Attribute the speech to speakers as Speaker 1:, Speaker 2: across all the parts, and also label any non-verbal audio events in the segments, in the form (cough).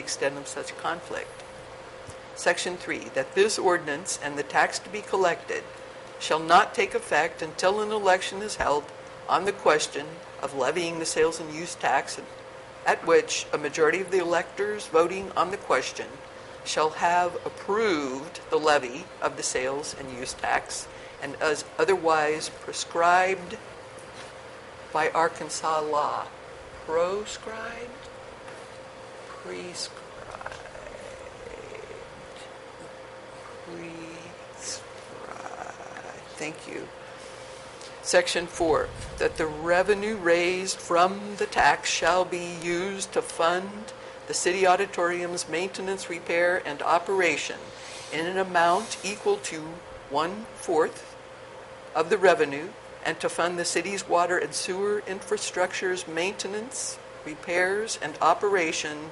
Speaker 1: extent of such conflict. Section 3, that this ordinance and the tax to be collected shall not take effect until an election is held on the question of levying the sales and use tax, at which a majority of the electors voting on the question shall have approved the levy of the sales and use tax and as otherwise prescribed by Arkansas law. Proscribed? Prescribed. Prescribed. Thank you. Section 4, that the revenue raised from the tax shall be used to fund the city auditorium's maintenance, repair, and operation in an amount equal to one-fourth of the revenue and to fund the city's water and sewer infrastructure's maintenance, repairs, and operation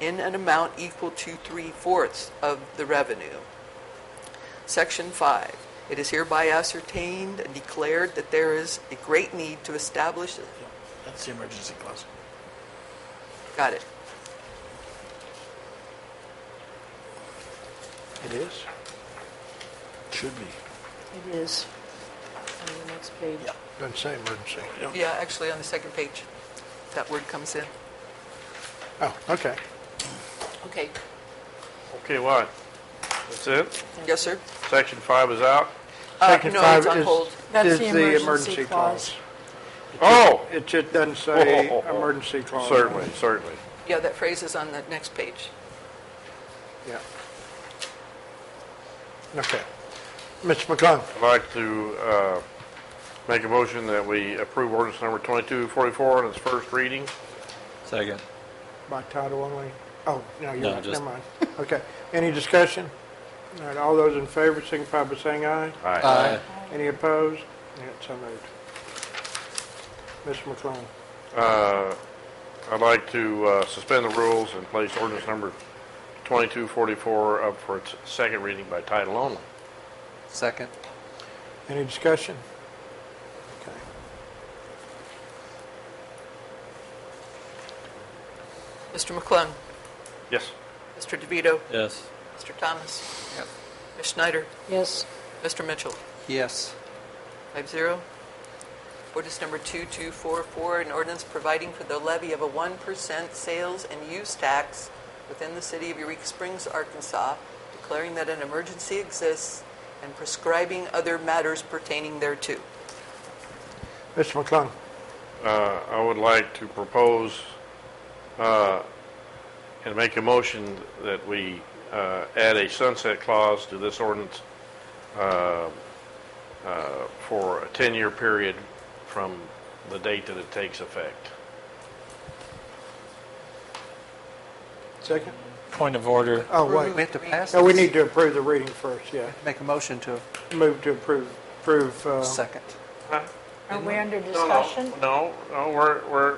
Speaker 1: in an amount equal to three-fourths of the revenue. Section 5. It is hereby ascertained and declared that there is a great need to establish,
Speaker 2: Yeah, That's the emergency clause.
Speaker 1: got it,
Speaker 2: It is? Should be.
Speaker 3: It is on the next page.
Speaker 2: Yeah.
Speaker 4: Doesn't say emergency.
Speaker 1: yeah, actually on the second page, that word comes in.
Speaker 4: Oh, okay.
Speaker 1: Okay.
Speaker 5: Okay, why? That's it?
Speaker 1: Yes, sir?
Speaker 5: Section five is out?
Speaker 1: Uh,
Speaker 4: Section
Speaker 1: No,
Speaker 4: five
Speaker 1: it's on
Speaker 4: is-
Speaker 1: hold.
Speaker 3: That's
Speaker 4: is
Speaker 3: the emergency clause.
Speaker 5: Oh,
Speaker 4: It just doesn't say
Speaker 5: Oh.
Speaker 4: emergency clause.
Speaker 5: certainly, certainly.
Speaker 1: Yeah, that phrase is on the next page.
Speaker 4: Yeah. Okay. Mr. McClung,
Speaker 5: I'd like to uh, make a motion that we approve ordinance number 2244 on its first reading.
Speaker 6: Second.
Speaker 4: by title only? Oh, no,
Speaker 6: No,
Speaker 4: you're not,
Speaker 6: just-
Speaker 4: never mind. Okay. Any discussion? All right, all those in favor signify by saying aye.
Speaker 5: Aye.
Speaker 4: Any opposed? Yeah, it's so moved. Mr. McClung,
Speaker 5: I'd like to uh, suspend the rules and place ordinance number 2244 up for its second reading by title only.
Speaker 6: Second.
Speaker 4: any discussion? Okay.
Speaker 1: Mr. McClung,
Speaker 5: Yes.
Speaker 1: Mr. DeVito,
Speaker 6: Yes.
Speaker 1: Mr. Thomas, Ms. Schneider,
Speaker 3: Yes,
Speaker 1: Mr. Mitchell.
Speaker 6: Yes.
Speaker 1: Five zero. Ordinance number 2244, an ordinance providing for the levy of a 1% sales and use tax within the city of Eureka Springs, Arkansas, declaring that an emergency exists and prescribing other matters pertaining thereto.
Speaker 4: Mr. McClung,
Speaker 5: Uh, I would like to propose uh, and make a motion that we uh, add a sunset clause to this ordinance uh, uh, for a 10-year period from the date that it takes effect.
Speaker 4: second?
Speaker 6: Point of order.
Speaker 4: Oh, wait.
Speaker 7: We have to pass
Speaker 4: No, we
Speaker 7: this.
Speaker 4: need to approve the reading first, yeah.
Speaker 7: Make a motion to
Speaker 4: Move to approve, approve, uh,
Speaker 7: second.
Speaker 3: are we under
Speaker 5: No, no,
Speaker 3: discussion?
Speaker 5: No, no, we're, we're,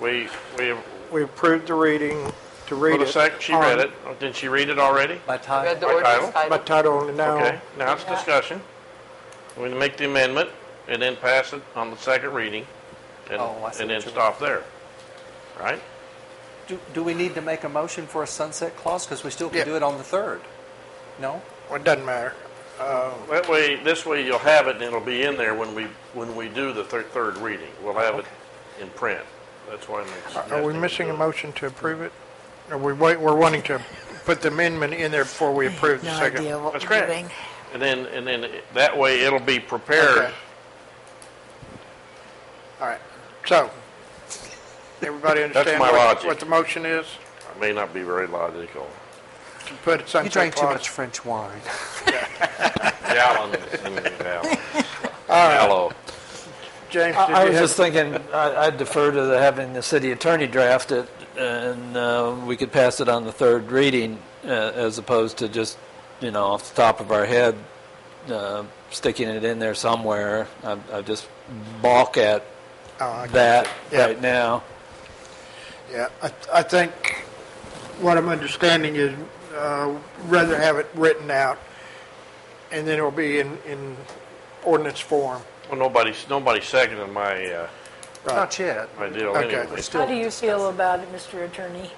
Speaker 5: we, we,
Speaker 4: we approved the reading to
Speaker 5: for
Speaker 4: read
Speaker 5: the
Speaker 4: it.
Speaker 5: sec, she read it. Oh, Didn't she read it already?
Speaker 7: By
Speaker 1: Read
Speaker 7: title,
Speaker 1: the
Speaker 5: By
Speaker 1: ordinance
Speaker 5: title?
Speaker 4: By
Speaker 1: title.
Speaker 4: title only now.
Speaker 5: Okay, now it's discussion. We're going to make the amendment and then pass it on the second reading and,
Speaker 7: Oh, I see
Speaker 5: and then
Speaker 7: what you mean.
Speaker 5: stop there. Right?
Speaker 7: do, do we need to make a motion for a sunset clause? Because we still
Speaker 4: Yeah.
Speaker 7: can do it on the third. No?
Speaker 4: Well, It doesn't matter.
Speaker 5: That way, this way you'll have it and it'll be in there when we, when we do the third, third reading. We'll have it in print. That's why I'm suggesting.
Speaker 4: Are we
Speaker 5: we
Speaker 4: missing
Speaker 5: do
Speaker 4: a
Speaker 5: it.
Speaker 4: motion to approve it? Are we wait, we're wanting to put the amendment in there before we approve the
Speaker 8: No
Speaker 4: second?
Speaker 8: idea what
Speaker 5: That's
Speaker 8: we're
Speaker 5: correct.
Speaker 8: doing.
Speaker 5: And then, and then it- that way it'll be prepared.
Speaker 4: Okay. All right, so, everybody understand
Speaker 5: my
Speaker 4: what,
Speaker 5: logic.
Speaker 4: what the motion is?
Speaker 5: It may not be very logical.
Speaker 4: To put it
Speaker 7: You
Speaker 4: sunset
Speaker 7: drank too much
Speaker 4: clause?
Speaker 7: French wine.
Speaker 5: Gallons and
Speaker 4: (laughs)
Speaker 5: gallons. Hello.
Speaker 4: James, did
Speaker 9: I I
Speaker 4: you
Speaker 9: was just
Speaker 4: have,
Speaker 9: thinking, I I defer to the- having the city attorney draft it, and uh, we could pass it on the third reading, uh, as opposed to just, you know, off the top of our head, uh, sticking it in there somewhere. I I just balk at
Speaker 4: Oh, I get
Speaker 9: that
Speaker 4: you. Yeah.
Speaker 9: right now.
Speaker 4: yeah, I, I think what I'm understanding is, uh, rather have it written out, and then it'll be in, in ordinance form.
Speaker 5: Well, nobody's, nobody's seconding my, uh,
Speaker 7: Not yet.
Speaker 5: my deal
Speaker 4: Okay.
Speaker 5: anyway.
Speaker 7: Still
Speaker 3: How do you feel about it, Mr. Attorney?